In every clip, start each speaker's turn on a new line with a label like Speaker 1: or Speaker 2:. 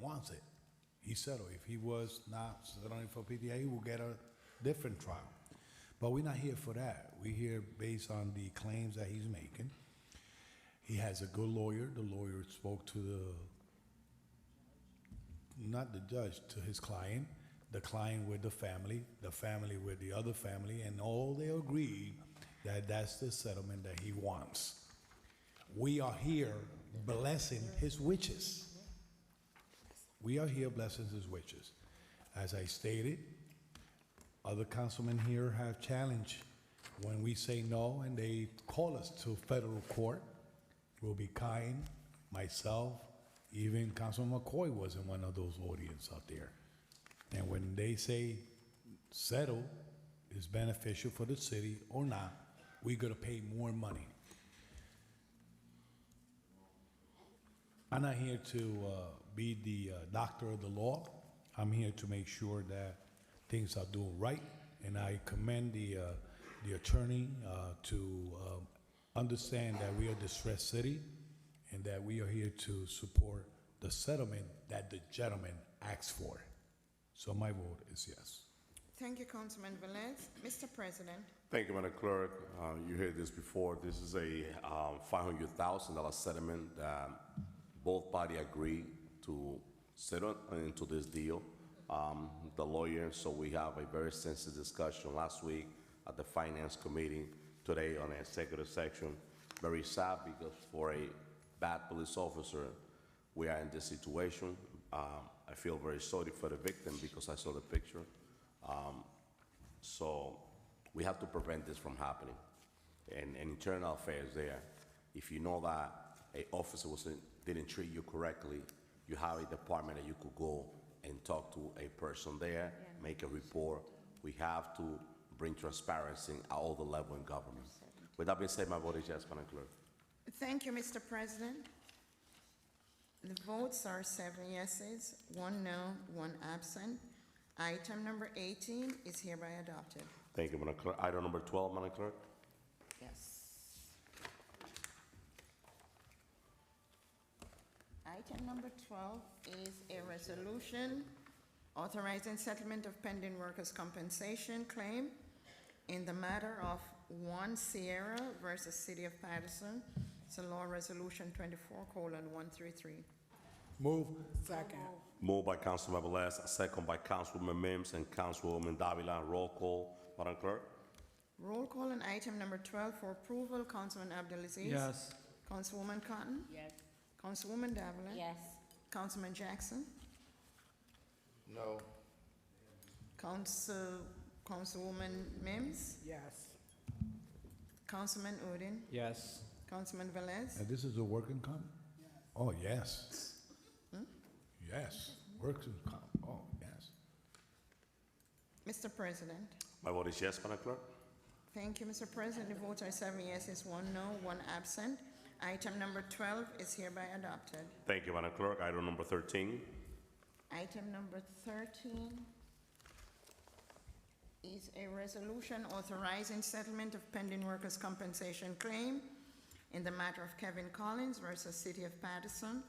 Speaker 1: wants it, he settle. If he was not settling for PDA, he will get a different trial. But we're not here for that. We're here based on the claims that he's making. He has a good lawyer. The lawyer spoke to the, not the judge, to his client, the client with the family, the family with the other family, and all they agreed that that's the settlement that he wants. We are here blessing his wishes. We are here blessing his wishes. As I stated, other councilmen here have challenged when we say no and they call us to federal court. We'll be kind, myself, even Councilman McCoy was in one of those audience out there. And when they say settle is beneficial for the city or not, we gotta pay more money. I'm not here to uh, be the uh, doctor of the law. I'm here to make sure that things are doing right, and I commend the uh, the attorney uh, to um, understand that we are a distressed city, and that we are here to support the settlement that the gentleman asked for. So my vote is yes.
Speaker 2: Thank you, Councilman Velez. Mr. President,
Speaker 3: Thank you, Madam Clerk. Uh, You heard this before. This is a um, $500,000 settlement that both parties agreed to settle into this deal. Um, The lawyer, so we have a very sensitive discussion last week at the Finance Committee, today on the executive section. Very sad because for a bad police officer, we are in this situation. Um, I feel very sorry for the victim because I saw the picture. So we have to prevent this from happening. And, and internal affairs there, if you know that a officer was, didn't treat you correctly, you have a department that you could go and talk to a person there, make a report. We have to bring transparency at all the level in government. With that being said, my vote is yes, Madam Clerk.
Speaker 2: thank you, Mr. President. The votes are seven yeses, one no, one absent. Item number 18 is hereby adopted.
Speaker 3: Thank you, Madam Clerk. Item number 12, Madam Clerk.
Speaker 2: Yes. Item number 12 is a resolution authorizing settlement of pending workers' compensation claim in the matter of One Sierra versus City of Patterson. It's a law resolution 24:133.
Speaker 1: Move.
Speaker 4: Second.
Speaker 3: Moved by Councilman Velez, second by Councilwoman Mims and Councilwoman Davila. Roll call, Madam Clerk.
Speaker 2: Roll call on item number 12 for approval, Councilman Abdelaziz.
Speaker 5: Yes.
Speaker 2: Councilwoman Cotton.
Speaker 4: Yes.
Speaker 2: Councilwoman Davila.
Speaker 4: Yes.
Speaker 2: Councilman Jackson.
Speaker 6: No.
Speaker 2: Council, Councilwoman Mims,
Speaker 4: Yes.
Speaker 2: Councilman Udine,
Speaker 5: Yes.
Speaker 2: Councilman Velez,
Speaker 1: And this is a working comp? Oh, yes. Yes, working comp, oh, yes.
Speaker 2: Mr. President.
Speaker 3: My vote is yes, Madam Clerk.
Speaker 2: Thank you, Mr. President. The votes are seven yeses, one no, one absent. Item number 12 is hereby adopted.
Speaker 3: Thank you, Madam Clerk. Item number 13.
Speaker 2: Item number 13 is a resolution authorizing settlement of pending workers' compensation claim in the matter of Kevin Collins versus City of Patterson,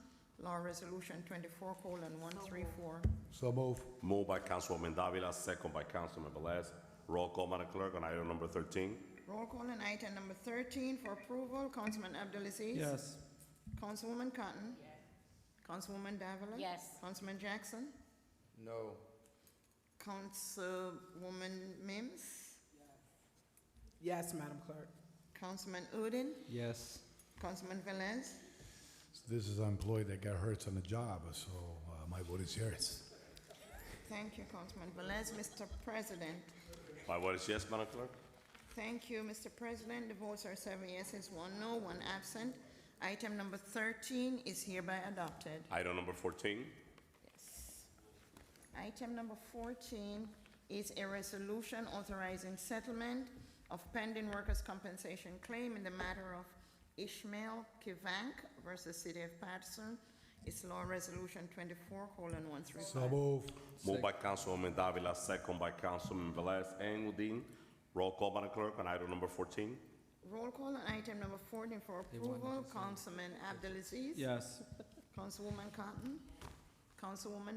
Speaker 2: Law Resolution 24:134.
Speaker 1: So move.
Speaker 3: Moved by Councilwoman Davila, second by Councilman Velez. Roll call, Madam Clerk, on item number 13.
Speaker 2: Roll call on item number 13 for approval, Councilman Abdulaziz.
Speaker 5: Yes.
Speaker 2: Councilwoman Cotton. Yes. Councilwoman Davila.
Speaker 4: Yes.
Speaker 2: Councilman Jackson.
Speaker 6: No.
Speaker 2: Councilwoman Mims.
Speaker 4: Yes, Madam Clerk.
Speaker 2: Councilman Udine.
Speaker 5: Yes.
Speaker 2: Councilman Velez.
Speaker 1: This is an employee that got hurt on the job, so uh, my vote is yes.
Speaker 2: Thank you, Councilman Velez. Mr. President.
Speaker 3: My vote is yes, Madam Clerk.
Speaker 2: Thank you, Mr. President. The votes are seven yeses, one no, one absent. Item number 13 is hereby adopted.
Speaker 3: Item number 14.
Speaker 2: Item number 14 is a resolution authorizing settlement of pending workers' compensation claim in the matter of Ishmael Kivank versus City of Patterson. It's Law Resolution 24:135.
Speaker 1: So move.
Speaker 3: Moved by Councilwoman Davila, second by Councilman Velez and Udine. Roll call, Madam Clerk, on item number 14.
Speaker 2: Roll call on item number 14 for
Speaker 5: want
Speaker 2: approval. Councilman Abdelaziz.
Speaker 5: Yes.
Speaker 2: Councilwoman Cotton. Councilwoman